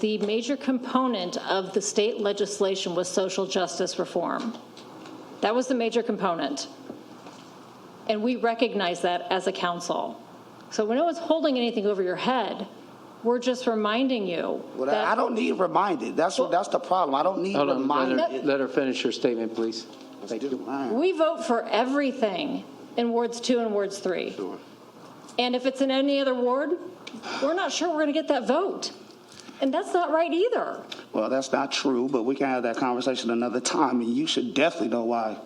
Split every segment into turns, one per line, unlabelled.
The major component of the state legislation was social justice reform. That was the major component. And we recognize that as a council. So when no one's holding anything over your head, we're just reminding you
Well, I I
that
don't need reminded. That's, what- that's the problem. I don't need
Hold on,
reminded.
let her, let her finish her statement, please. Thank you.
we vote for everything in wards two and wards three. And if it's in any other ward, we're not sure we're going to get that vote. And that's not right either.
Well, that's not true, but we can have that conversation another time, and you should definitely know why.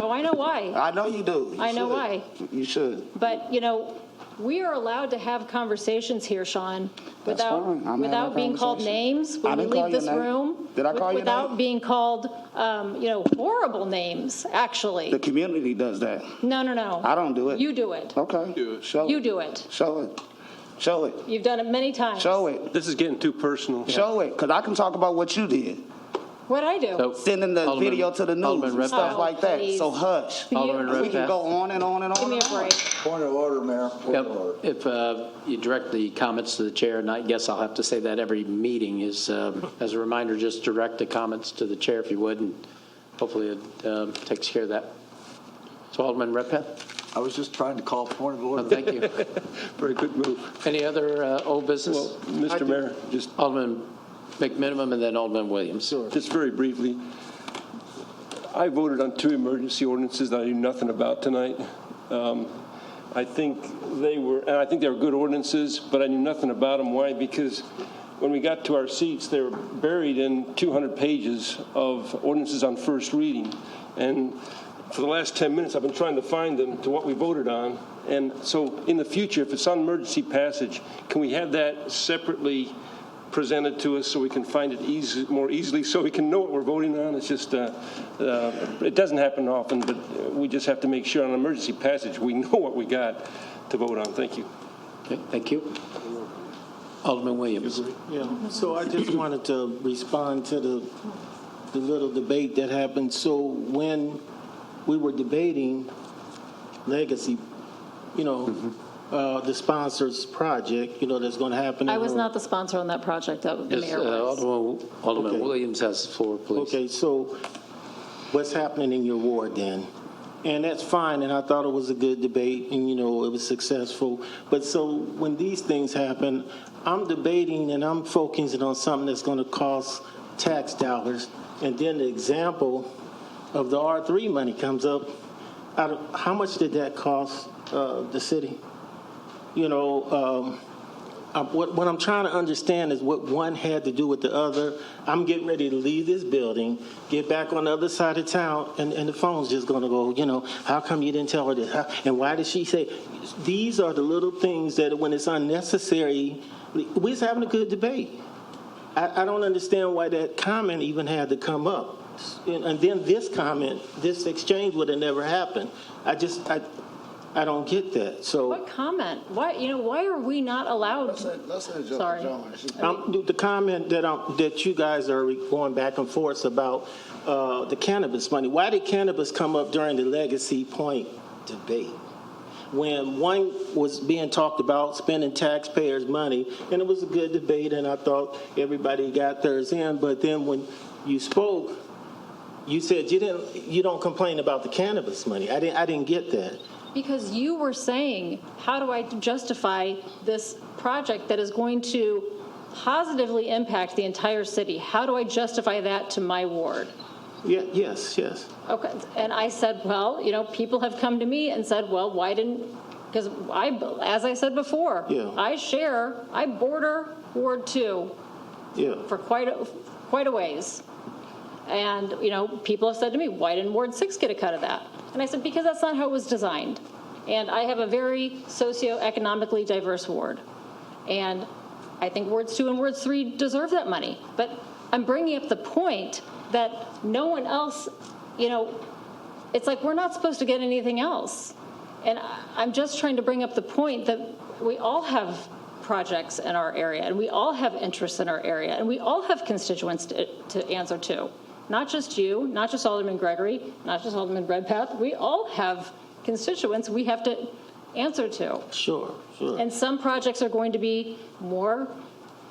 Oh, I know why,
I know you do. You
I know
should.
why.
You should.
but, you know, we are allowed to have conversations here, Sean,
That's fine.
without,
I'm having a
without being called
conversation.
names
I
when we
didn't call
leave
your
this
name.
room.
Did I
with-
call your
Without
name?
being called, um, you know, horrible names,
The
actually.
community does that.
No, no, no.
I don't do it. Oh.
You do it.
Okay. Show
You
it.
do it.
Show it. Show it.
You've done it many times.
Show it.
This is getting too personal.
Show it. Because I can talk about what you did,
What I do.
So-
sending the
Alderman-
video to the news
Alderman
and
Redpath.
stuff like that.
Oh,
So
please.
hush.
Alderman
You-
We can
Redpath.
go on and on and on.
Give me
and
a
on.
break.
Point of order, Mayor, point
Yep,
of order.
If uh, you direct the comments to the chair, and I guess I'll have to say that every meeting is, um, as a reminder, just direct the comments to the chair if you would, and hopefully it um, takes care of that. So Alderman Redpath,
I was just trying to call point of
well,
order.
thank you.
Very good move.
Any other uh, old business?
Well, Mr. Mayor, just,
Alderman McMinimum and then Alderman Williams.
just very briefly, I voted on two emergency ordinances that I knew nothing about tonight. Um, I think they were, and I think they were good ordinances, but I knew nothing about them. Why? Because when we got to our seats, they were buried in 200 pages of ordinances on first reading. And for the last 10 minutes, I've been trying to find them to what we voted on. And so in the future, if it's on emergency passage, can we have that separately presented to us so we can find it easy, more easily, so we can know what we're voting on? It's just, uh, uh, it doesn't happen often, but uh, we just have to make sure on emergency passage, we know what we got to vote on. Thank you.
Okay, Thank you. Alderman Williams.
Yeah, so I just wanted to respond to the, the little debate that happened. So when we were debating legacy, you know, uh, the sponsors project, you know, that's going to happen. in
I was
the-
not the sponsor on that project, that the
Yes,
mayor
uh,
was.
Alderman Alderman
Okay.
Williams has the floor, please.
Okay, so what's happening in your ward then? And that's fine, and I thought it was a good debate, and you know, it was successful. But so when these things happen, I'm debating and I'm focusing on something that's gonna cost tax dollars. And then the example of the R3 money comes up. I don't- How much did that cost uh, the city? you know, um, I, what, what I'm trying to understand is what one had to do with the other. I'm getting ready to leave this building, get back on the other side of town, and, and the phone's just going to go, you know, how come you didn't tell her this? How, and why did she say? These are the little things that when it's unnecessary, we're just having a good debate. I, I don't understand why that comment even had to come up. And, and then this comment, this exchange would have never happened. I just, I, I don't get that. So.
What comment? Why, you know, why are we not allowed? Sorry.
Um, the- the comment that, um, that you guys are going back and forth about, uh, the cannabis money, why did cannabis come up during the legacy point debate? When one was being talked about spending taxpayers' money, and it was a good debate, and I thought everybody got theirs in, but then when you spoke, you said you didn't, you don't complain about the cannabis money. I didn't, I didn't get that.
Because you were saying, how do I justify this project that is going to positively impact the entire city? How do I justify that to my ward?
Yeah, yes, yes.
Okay, and I said, well, you know, people have come to me and said, well, why didn't, because I, as I said before,
Yeah.
I share, I border Ward Two
Yeah,
for quite, a- quite a ways. And, you know, people have said to me, why didn't Ward 6 get a cut of that? And I said, because that's not how it was designed. And I have a very socioeconomically diverse ward. And I think Wards 2 and Wards 3 deserve that money. But I'm bringing up the point that no one else, you know, it's like we're not supposed to get anything else. And I- I'm just trying to bring up the point that we all have projects in our area, and we all have interests in our area, and we all have constituents to, to answer to. Not just you, not just Alderman Gregory, not just Alderman Redpath. We all have constituents we have to answer to.
sure, sure.
And some projects are going to be more